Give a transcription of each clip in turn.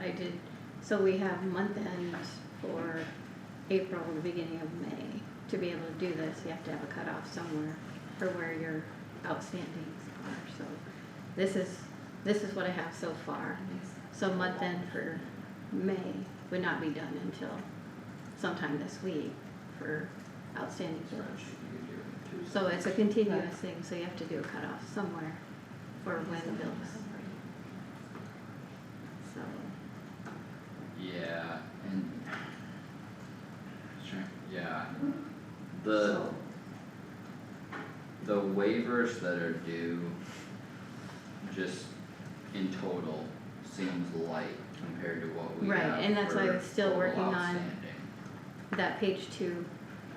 I did, so we have month end for April and the beginning of May. To be able to do this, you have to have a cutoff somewhere for where your outstandings are, so this is, this is what I have so far. So month end for May would not be done until sometime this week for outstanding bills. So it's a continuous thing, so you have to do a cutoff somewhere for when bills, so. Yeah, and. Sure, yeah. The, the waivers that are due. Just in total seems light compared to what we Right, have and that's why I for was still total working on- outstanding. That page two,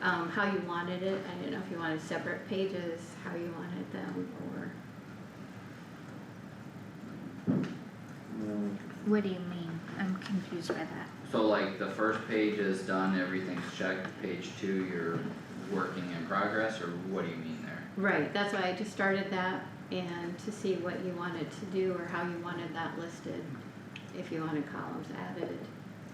um, how you wanted it, I didn't know if you wanted separate pages, how you wanted them, or What do you mean? I'm confused by that. So like the first page is done, everything's checked, page two, you're working in progress, or what do you mean there? Right, that's why I just started that and to see what you wanted to do or how you wanted that listed. If you wanted columns added,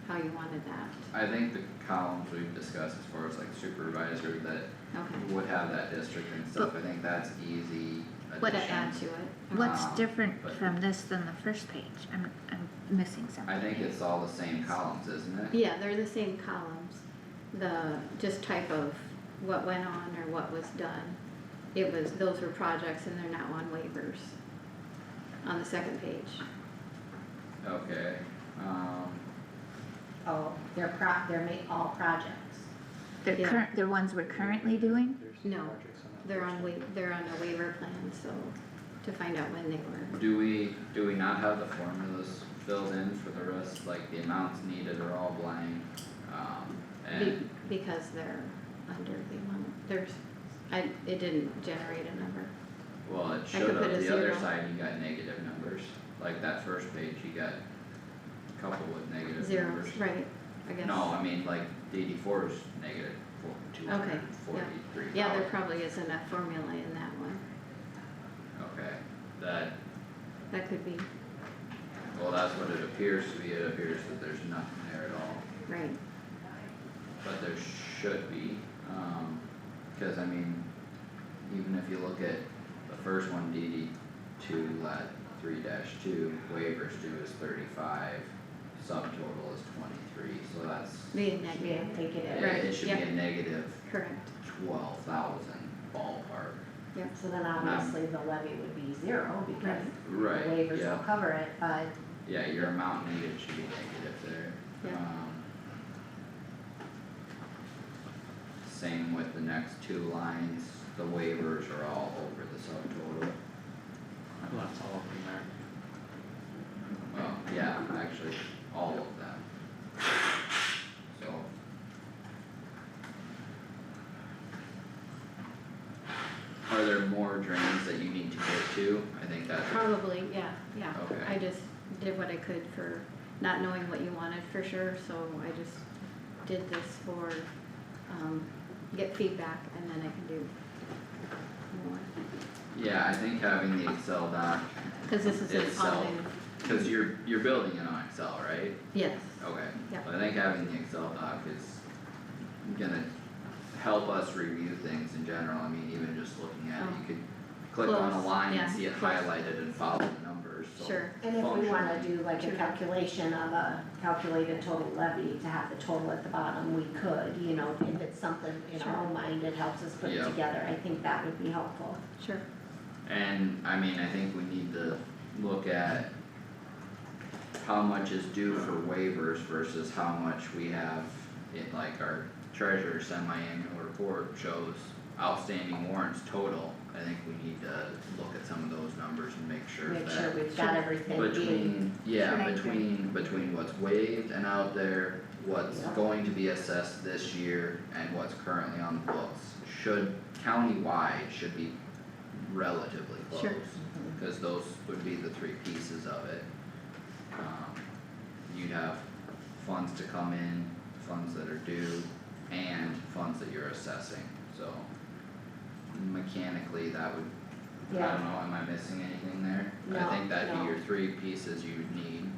how you wanted that, I think the columns we've discussed as far as like supervisor that okay. would have that district and stuff, I think that's easy addition. What to add to it. What's Um, different but- from this than the first page? I'm, I'm missing something. I think it's all the same columns, isn't it? Yeah, they're the same columns, the, just type of what went on or what was done. It was, those were projects and they're now on waivers on the second page. Okay, um, Oh, they're pro, they're ma- all projects. They're yeah. current, they're ones we're currently doing? No, They're on wa- they're on a waiver plan, so to find out when they were. do we, do we not have the formulas filled in for the rest, like the amounts needed are all blank? Um, Be- and, Because they're under the amount, there's, I, it didn't generate a number. well, it could showed put up a the other zero. side, you got negative numbers, like that first page, you got a couple with negative numbers. Zeros, right, I guess. No, I mean, like DD four is negative four, two Okay, hundred forty-three thousand. Yeah, there probably isn't a formula in that one. Okay, that, That could be, well, that's what it appears to be, it appears that there's nothing there at all. right. But there should be, um, cause I mean, even if you look at the first one, DD two, lat three dash two, waivers due is thirty-five, subtotal is twenty-three, so that's, Be a We didn't negative, take it it, at, Right, it should be yeah. a negative correct, twelve thousand ballpark. so then obviously the levy would be zero because the Right, waivers yeah. will cover it, but Yeah, your amount needed should be negative there. Yeah. Um, Same with the next two lines, the waivers are all over the subtotal. Well, that's all of them there. Well, yeah, actually, all of them. So. Are there more drains that you need to get to? I think that's probably, yeah, yeah. Okay. I just did what I could for not knowing what you wanted for sure, so I just did this for, um, get feedback and then I can do more. yeah, I think having the Excel doc, Cause this is It's an all all- new, cause you're, you're building it on Excel, right? yes, Okay. Yeah. But I think having the Excel doc is gonna help us review things in general, I mean, even just looking at it, you could click on a Oh. Close, line yeah, and see it close. highlighted and follow the numbers, so. sure, and if we wanna Functionally. do like a Sure. calculation of a calculated total levy to have the total at the bottom, we could, you know, if it's something in our Sure. own mind that helps us put it Yeah. together, I think that would be helpful. sure, And I mean, I think we need to look at how much is due for waivers versus how much we have in like our treasurer's semi-annual report shows outstanding warrants total. I think we need to look at some of those numbers and make sure that. Make sure we've got everything being Between, yeah, Right. between, between what's waived and out there, what's Yeah. going to be assessed this year and what's currently on the books. Should, countywide should be relatively close. Sure. Cause those would be the three pieces of it. Um, you'd have funds to come in, funds that are due, and funds that you're assessing, so. Mechanically, that would I Yeah. don't know, am I missing anything there? No, I think that'd no. be your three pieces you would need